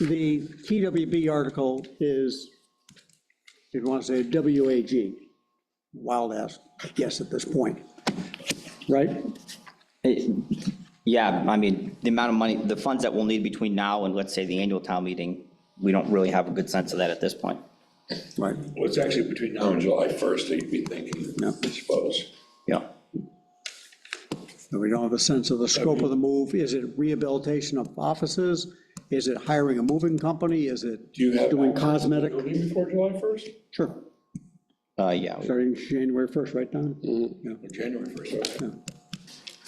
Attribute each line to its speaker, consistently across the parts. Speaker 1: The TWB article is, if you want to say WAG, wild ass guess at this point, right?
Speaker 2: Yeah, I mean, the amount of money, the funds that we'll need between now and, let's say, the annual town meeting, we don't really have a good sense of that at this point.
Speaker 1: Right.
Speaker 3: Well, it's actually between now and July 1st, they'd be thinking, I suppose.
Speaker 2: Yeah.
Speaker 1: And we don't have a sense of the scope of the move. Is it rehabilitation of offices? Is it hiring a moving company? Is it
Speaker 3: Do you have?
Speaker 1: doing cosmetic?
Speaker 3: Do you need Before July 1st?
Speaker 1: Sure,
Speaker 2: Uh, yeah,
Speaker 1: starting January 1st, right, Don?
Speaker 3: Or January 1st, okay.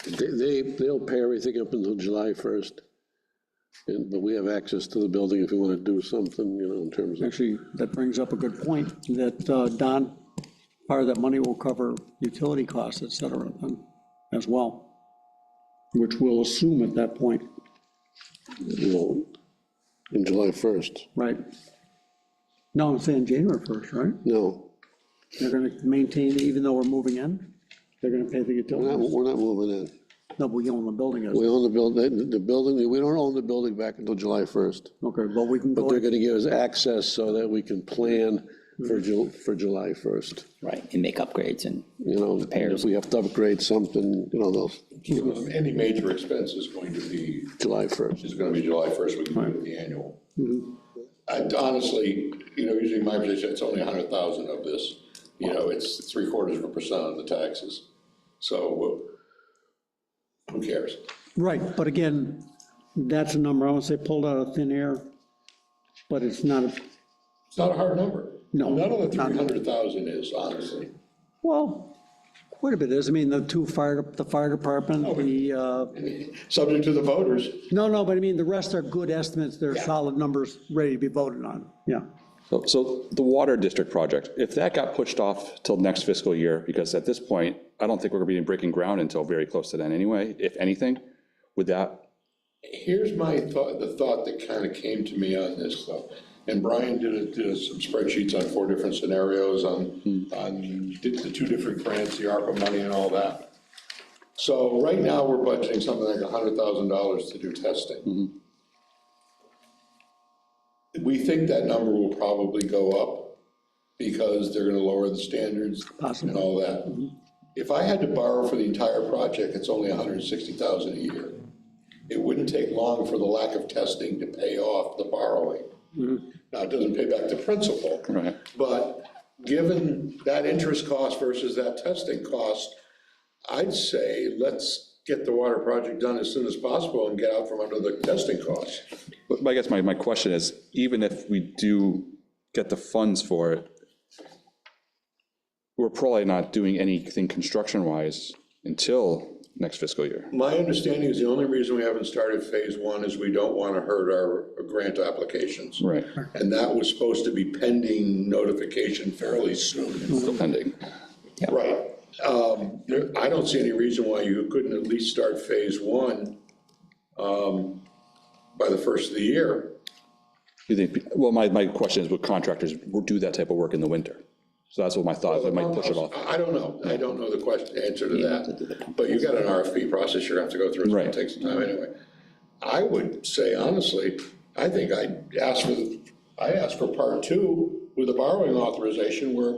Speaker 4: They, they- they'll pay everything up until July 1st, and, but we have access to the building if we want to do something, you know, in terms of,
Speaker 1: Actually, that brings up a good point, that, uh, Don, part of that money will cover utility costs, et cetera, um, as well, which we'll assume at that point,
Speaker 4: you know, in July 1st.
Speaker 1: right? No, I'm saying January 1st, right?
Speaker 4: No,
Speaker 1: They're going to maintain, even though we're moving in, they're going to pay the
Speaker 4: we're not,
Speaker 1: utilities.
Speaker 4: we're not moving in.
Speaker 1: No, we own the building, as-
Speaker 4: We own the building, the building, we don't own the building back until July 1st.
Speaker 1: okay, but we can
Speaker 4: But
Speaker 1: go,
Speaker 4: they're going to give us access so that we can plan for Ju, for July 1st,
Speaker 2: right, and make upgrades and,
Speaker 4: you know. and If
Speaker 2: Repairs.
Speaker 4: we have to upgrade something, you know, they'll,
Speaker 3: So Any major expense is going to be,
Speaker 4: July 1st.
Speaker 3: is going to be July 1st, we can do it the annual.
Speaker 1: Mm-hmm.
Speaker 3: I honestly, you know, usually my position, it's only 100,000 of this, you know, it's three quarters of a percent of the taxes. So uh, who cares?
Speaker 1: right, but again, that's a number, I won't say pulled out of thin air, but it's not, a
Speaker 3: It's not a hard number.
Speaker 1: No,
Speaker 3: None of the
Speaker 1: not-
Speaker 3: 300,000 is, honestly.
Speaker 1: Well, quite a bit is, I mean, the two fire, the fire department, the, uh,
Speaker 3: Subject to the voters.
Speaker 1: no, no, but I mean, the rest are good estimates, they're solid numbers, ready to be voted on, yeah.
Speaker 5: So- So the water district project, if that got pushed off till next fiscal year, because at this point, I don't think we're going to be breaking ground until very close to then anyway, if anything, would that,
Speaker 3: Here's my thought, the thought that kind of came to me on this though. And Brian did, a- did some spreadsheets on four different scenarios on, on did the two different grants, the ARPA money and all that. So right now, we're budgeting something like hundred thousand dollars to do testing. We think that number will probably go up because they're gonna lower the standards and
Speaker 1: Possibly.
Speaker 3: all that. If I had to borrow for the entire project, it's only hundred and sixty thousand a year it wouldn't take long for the lack of testing to pay off the borrowing. Now, it doesn't pay back the principal.
Speaker 5: Mm-hmm. Right.
Speaker 3: But given that interest cost versus that testing cost, I'd say let's get the water project done as soon as possible and get out from under the testing costs.
Speaker 5: but I guess my, my question is, even if we do get the funds for it, we're probably not doing anything construction-wise until next fiscal year.
Speaker 3: My understanding is the only reason we haven't started phase one is we don't want to hurt our grant applications.
Speaker 5: Right,
Speaker 3: And that was supposed to be pending notification fairly soon.
Speaker 5: still pending.
Speaker 3: Right. Um, there- I don't see any reason why you couldn't at least start phase one um, by the first of the year.
Speaker 5: Do they, well, my, my question is, would contractors do that type of work in the winter? So that's what my thought, I might push it off.
Speaker 3: I I don't know. I don't know the question, answer to that. But you got an RFP process you're gonna have to go through. It's gonna
Speaker 5: Right.
Speaker 3: take some time anyway. I would say honestly, I think I'd ask for, the I asked for part two with a borrowing authorization where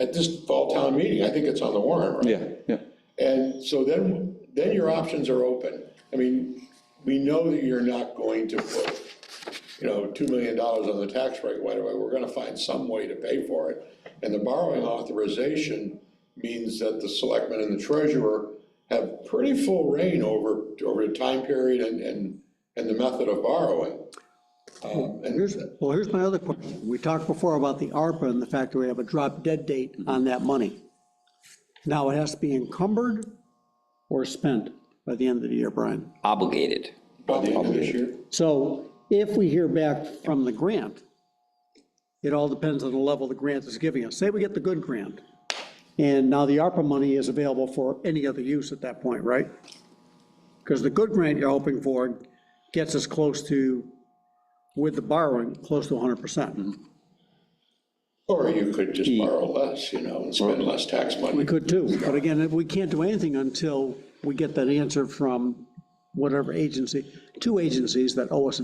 Speaker 3: at this fall town meeting, I think it's on the warrant, right?
Speaker 5: Yeah, yeah,
Speaker 3: And so then, then your options are open. I mean, we know that you're not going to put, you know, $2 million on the tax rate right away. We're going to find some way to pay for it. And the borrowing authorization means that the selectmen and the treasurer have pretty full reign over, over the time period and, and, and the method of borrowing. Um, And
Speaker 1: Here's, well, here's my other question, we talked before about the ARPA and the fact that we have a drop dead date on that money. Now, it has to be encumbered or spent by the end of the year, Brian.
Speaker 2: obligated.
Speaker 3: by the end of this year,
Speaker 1: So if we hear back from the grant, it all depends on the level the grant is giving us. Say we get the good grant, and now the ARPA money is available for any other use at that point, right? Because the good grant you're hoping for gets us close to, with the borrowing, close to 100%.
Speaker 3: or you could just borrow less, you know, and spend less tax money.
Speaker 1: We could too, but again, we can't do anything until we get that answer from whatever agency, two agencies that owe us